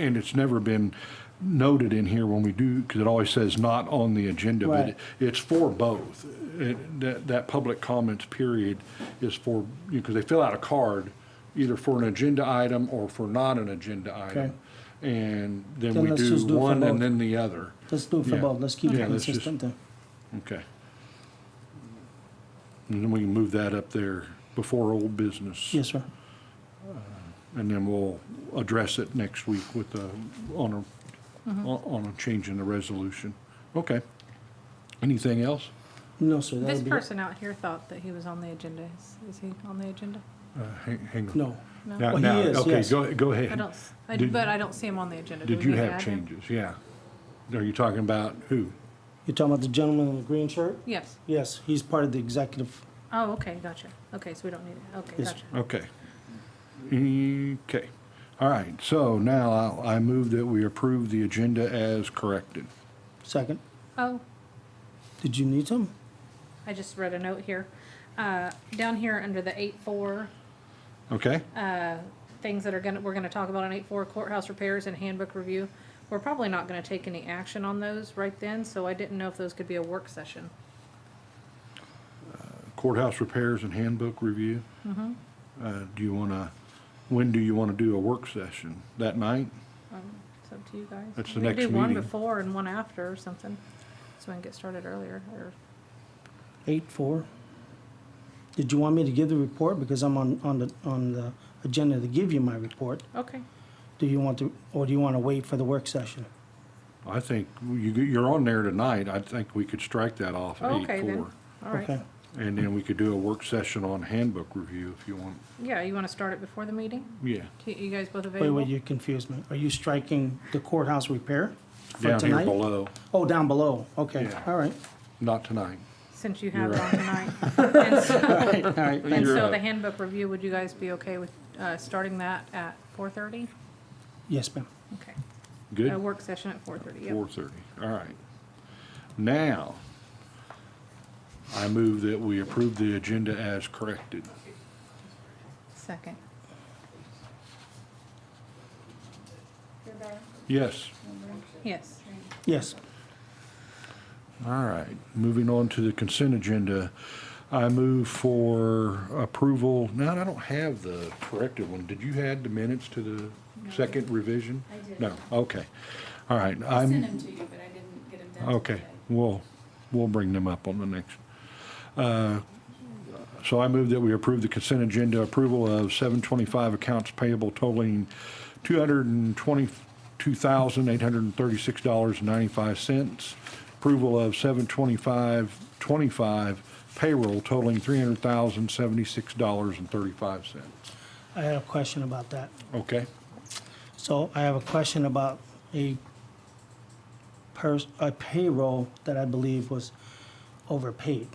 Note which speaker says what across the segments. Speaker 1: And it's never been noted in here when we do, because it always says not on the agenda, but
Speaker 2: Right.
Speaker 1: it's for both. It- That, that public comments period is for, because they fill out a card, either for an agenda item or for not an agenda
Speaker 2: Okay.
Speaker 1: item. And then
Speaker 2: Then
Speaker 1: we
Speaker 2: let's just
Speaker 1: do
Speaker 2: do it for
Speaker 1: one and
Speaker 2: both.
Speaker 1: then the other.
Speaker 2: Let's do it for
Speaker 1: Yeah.
Speaker 2: both, let's keep it
Speaker 1: Yeah, let's just-
Speaker 2: consistent then.
Speaker 1: Okay. And then we can move that up there before old business.
Speaker 2: Yes, sir.
Speaker 1: And then we'll address it next week with the, on a,
Speaker 3: Mm-hmm.
Speaker 1: on on a change in the resolution. Okay. Anything else?
Speaker 2: No, sir, that'll
Speaker 3: This
Speaker 2: be.
Speaker 3: person out here thought that he was on the agenda. Is, is he on the agenda?
Speaker 1: Uh, Hang hang on.
Speaker 2: No,
Speaker 3: No.
Speaker 1: Now-
Speaker 2: Well, he
Speaker 1: now-
Speaker 2: is, yes.
Speaker 1: Okay, go, go
Speaker 3: I
Speaker 1: ahead.
Speaker 3: don't, s- I-
Speaker 1: Did-
Speaker 3: but I don't see him on the agenda. Do
Speaker 1: Did you
Speaker 3: we need to
Speaker 1: have
Speaker 3: add him?
Speaker 1: changes? Yeah. Are you talking about who?
Speaker 2: you're talking about the gentleman in the green shirt?
Speaker 3: Yes.
Speaker 2: Yes, he's part of the executive,
Speaker 3: Oh, okay, gotcha. Okay, so we don't need it. Okay,
Speaker 2: Yes.
Speaker 3: gotcha.
Speaker 1: Okay. Okay. All right, so now I'll- I move that we approve the agenda as corrected.
Speaker 2: second.
Speaker 3: Oh,
Speaker 2: Did you need him?
Speaker 3: I just read a note here. Uh, down here under the eight four,
Speaker 1: Okay?
Speaker 3: things that are gonna, we're gonna talk about on eight four courthouse repairs and handbook review. We're probably not gonna take any action on those right then, so I didn't know if those could be a work session.
Speaker 1: Courthouse repairs and handbook review.
Speaker 3: Mm-hmm.
Speaker 1: Uh, Do you want to, when do you want to do a work session? That night?
Speaker 3: It's up to you guys.
Speaker 1: That's the
Speaker 3: We could
Speaker 1: next
Speaker 3: Do one
Speaker 1: meeting.
Speaker 3: before and one after or something, so we can get started earlier, or
Speaker 2: Eight, four. Did you want me to give the report? Because I'm on, on the, on the agenda to give you my report.
Speaker 3: Okay,
Speaker 2: Do you want to, or do you want to wait for the worg session?
Speaker 1: I think you, you're on there tonight. I think we could strike that off at
Speaker 3: okay then,
Speaker 1: 8:04.
Speaker 3: all
Speaker 2: Okay.
Speaker 3: right.
Speaker 1: And then we could do a work session on handbook review if you want.
Speaker 3: Yeah, you wanna start it before the meeting?
Speaker 1: Yeah.
Speaker 3: You- You guys both
Speaker 2: Wait,
Speaker 3: available?
Speaker 2: wait, you confused me. Are you striking the courthouse repair for
Speaker 1: Down here
Speaker 2: tonight?
Speaker 1: below,
Speaker 2: Oh, down below, okay,
Speaker 1: Yeah.
Speaker 2: all right,
Speaker 1: not tonight.
Speaker 3: Since you have it
Speaker 1: You're
Speaker 3: on tonight. And so-
Speaker 2: all right, all right.
Speaker 3: And
Speaker 1: You're
Speaker 3: so
Speaker 1: up.
Speaker 3: the handbook review, would you guys be okay with, uh, starting that at four thirty?
Speaker 2: Yes, ma'am.
Speaker 3: Okay, a
Speaker 1: Good?
Speaker 3: work session at four thirty, yep.
Speaker 1: 4:30, all right. Now, I move that we approve the agenda as corrected.
Speaker 3: Second.
Speaker 1: Yes.
Speaker 3: Yes,
Speaker 2: Yes,
Speaker 1: All right, moving on to the consent agenda. I move for approval, no, I don't have the corrected one. Did you add the minutes to the second revision?
Speaker 4: I did.
Speaker 1: No, okay. All right,
Speaker 4: I sent
Speaker 1: I'm,
Speaker 4: them to you, but I didn't get them done
Speaker 1: okay,
Speaker 4: today.
Speaker 1: we'll, we'll bring them up on the next. Uh, So I move that we approve the consent agenda approval of 725 accounts payable totaling $222,836.95. Approval of 725 payroll totaling $300,076.35.
Speaker 2: I had a question about that.
Speaker 1: Okay?
Speaker 2: So I have a question about a pers- a payroll that I believe was overpaid.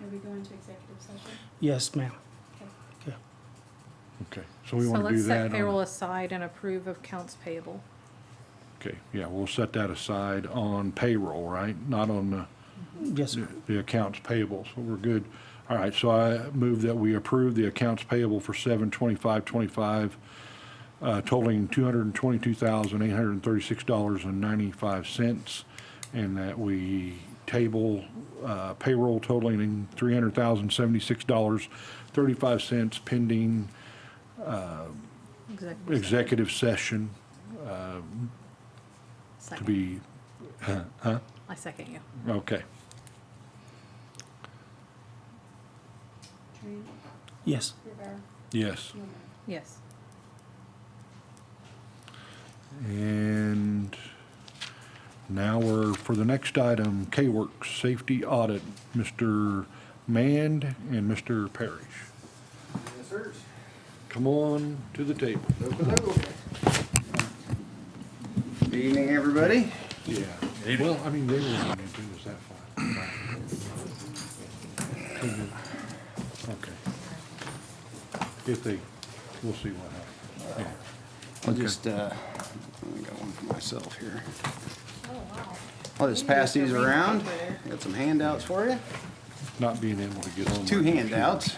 Speaker 4: Are we going to executive session?
Speaker 2: Yes, ma'am.
Speaker 4: Okay.
Speaker 2: Okay.
Speaker 1: Okay, so we
Speaker 3: so
Speaker 1: want to do
Speaker 3: let's
Speaker 1: that.
Speaker 3: set
Speaker 1: on-
Speaker 3: payroll aside and approve of counts payable.
Speaker 1: Okay, yeah, we'll set that aside on payroll, right? Not on the.
Speaker 2: Yes, sir.
Speaker 1: the accounts payable, so we're good. All right, so I move that we approve the accounts payable for seven twenty-five twenty-five uh, totaling two hundred and twenty-two thousand, eight hundred and thirty-six dollars and ninety-five cents, and that we table uh, payroll totaling three hundred thousand, seventy-six dollars, thirty-five cents pending
Speaker 3: Executive session.
Speaker 1: executive session to
Speaker 3: Second.
Speaker 1: be,
Speaker 3: I second you.
Speaker 1: okay.
Speaker 4: Tree,
Speaker 2: Yes.
Speaker 4: Rivera,
Speaker 1: Yes.
Speaker 4: Newman.
Speaker 3: Yes.
Speaker 1: And now we're for the next item, K-Works Safety Audit, Mr. Mand and Mr. Parrish.
Speaker 5: Yes, sirs.
Speaker 1: Come on to the table.
Speaker 5: Good evening, everybody.
Speaker 1: Yeah. Well, I mean, they were going to do this that far. Okay. If they, we'll see what happens. Yeah.
Speaker 5: I'll just, uh, I got one for myself here.
Speaker 3: Oh, wow.
Speaker 5: I'll just pass these around. Got some handouts for you.
Speaker 1: Not being able to get on.
Speaker 5: Two
Speaker 1: my
Speaker 5: handouts.